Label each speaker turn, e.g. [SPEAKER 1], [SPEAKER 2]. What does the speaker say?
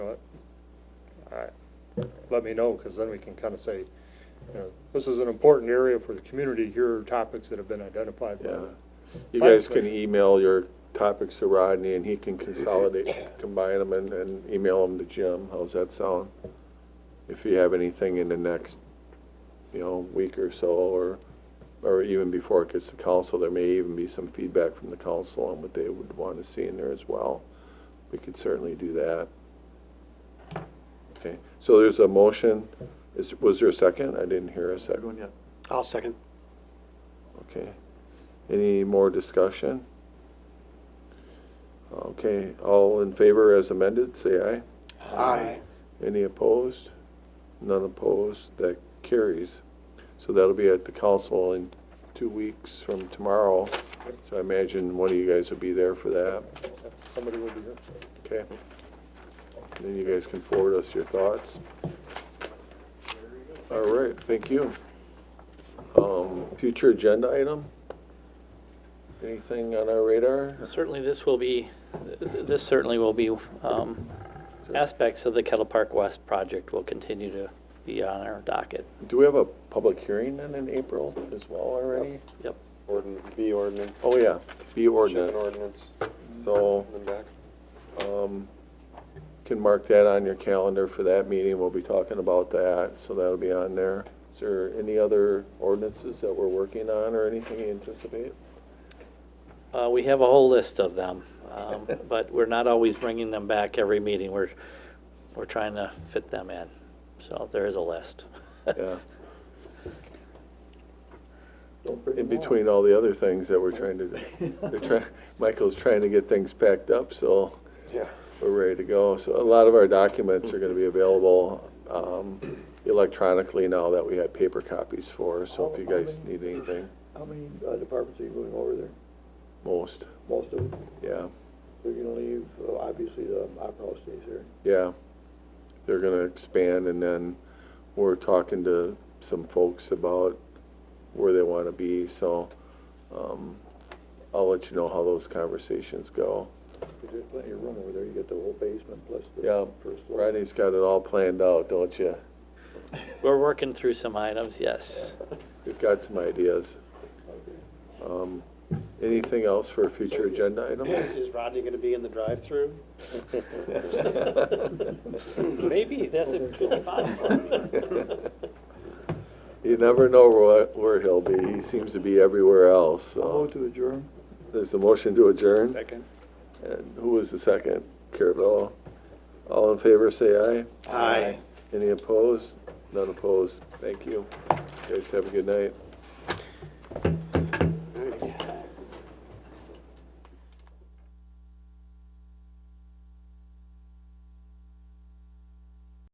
[SPEAKER 1] I- let me know, because then we can kind of say, you know, this is an important area for the community, here are topics that have been identified by
[SPEAKER 2] Yeah.
[SPEAKER 1] the
[SPEAKER 2] You
[SPEAKER 1] Fire
[SPEAKER 2] guys can
[SPEAKER 1] suppression.
[SPEAKER 2] email your topics to Rodney, and he can consolidate, combine them, and, and email them to Jim. How's that sound? If you have anything in the next, you know, week or so, or, or even before it gets to council, there may even be some feedback from the council on what they would want to see in there as well. We could certainly do that. Okay, so there's a motion. Is, was there a second? I didn't hear a second. yet.
[SPEAKER 3] I'll second.
[SPEAKER 2] Okay. Any more discussion? Okay, all in favor as amended, say aye.
[SPEAKER 3] Aye.
[SPEAKER 2] Any opposed? None opposed, that carries. So that'll be at the council in two weeks from tomorrow. So I imagine one of you guys will be there for that,
[SPEAKER 1] Somebody will be here.
[SPEAKER 2] okay? Then you guys can forward us your thoughts. All right, thank you. Um, Future agenda item? Anything on our radar?
[SPEAKER 4] Certainly, this will be, this certainly will be, um, aspects of the Kettle Park West project will continue to be on our docket.
[SPEAKER 2] Do we have a public hearing then in April as well already?
[SPEAKER 4] Yep.
[SPEAKER 5] Ordinance, B ordinance,
[SPEAKER 2] Oh, yeah, fee
[SPEAKER 5] shipping
[SPEAKER 2] ordinance.
[SPEAKER 5] ordinance,
[SPEAKER 2] So,
[SPEAKER 5] and then back.
[SPEAKER 2] um, can mark that on your calendar for that meeting. We'll be talking about that, so that'll be on there. Is there any other ordinances that we're working on or anything you anticipate?
[SPEAKER 4] Uh, We have a whole list of them, um, but we're not always bringing them back every meeting. We're, we're trying to fit them in. So there is a list.
[SPEAKER 2] Yeah. In between all the other things that we're trying to, do. they're trying, Michael's trying to get things packed up, so.
[SPEAKER 5] Yeah.
[SPEAKER 2] We're ready to go. So a lot of our documents are going to be available um, electronically now that we have paper copies for. So if you guys need anything,
[SPEAKER 6] How many uh, departments are you going over there?
[SPEAKER 2] most,
[SPEAKER 6] Most of them?
[SPEAKER 2] yeah,
[SPEAKER 6] They're gonna leave, uh, obviously, the Opera House stays here.
[SPEAKER 2] yeah. They're going to expand and then we're talking to some folks about where they want to be. So um, I'll let you know how those conversations go.
[SPEAKER 6] 'Cause There's plenty of room over there, you get the whole basement plus
[SPEAKER 2] Yeah,
[SPEAKER 6] the first floor.
[SPEAKER 2] Rodney's got it all planned out, don't you?
[SPEAKER 4] We're working through some items, yes.
[SPEAKER 2] We've got some ideas. Um, Anything else for a future agenda item?
[SPEAKER 3] Is Rodney gonna be in the drive-through?
[SPEAKER 4] Maybe, that's a good spot for me.
[SPEAKER 2] You never know where, where he'll be. He seems to be everywhere else,
[SPEAKER 6] I'll
[SPEAKER 2] so.
[SPEAKER 6] move to adjourn.
[SPEAKER 2] There's a motion to adjourn.
[SPEAKER 3] Second.
[SPEAKER 2] And who was the second? Carabello. All in favor, say aye.
[SPEAKER 3] Aye.
[SPEAKER 2] Any opposed? None opposed. Thank you. Guys, have a good night.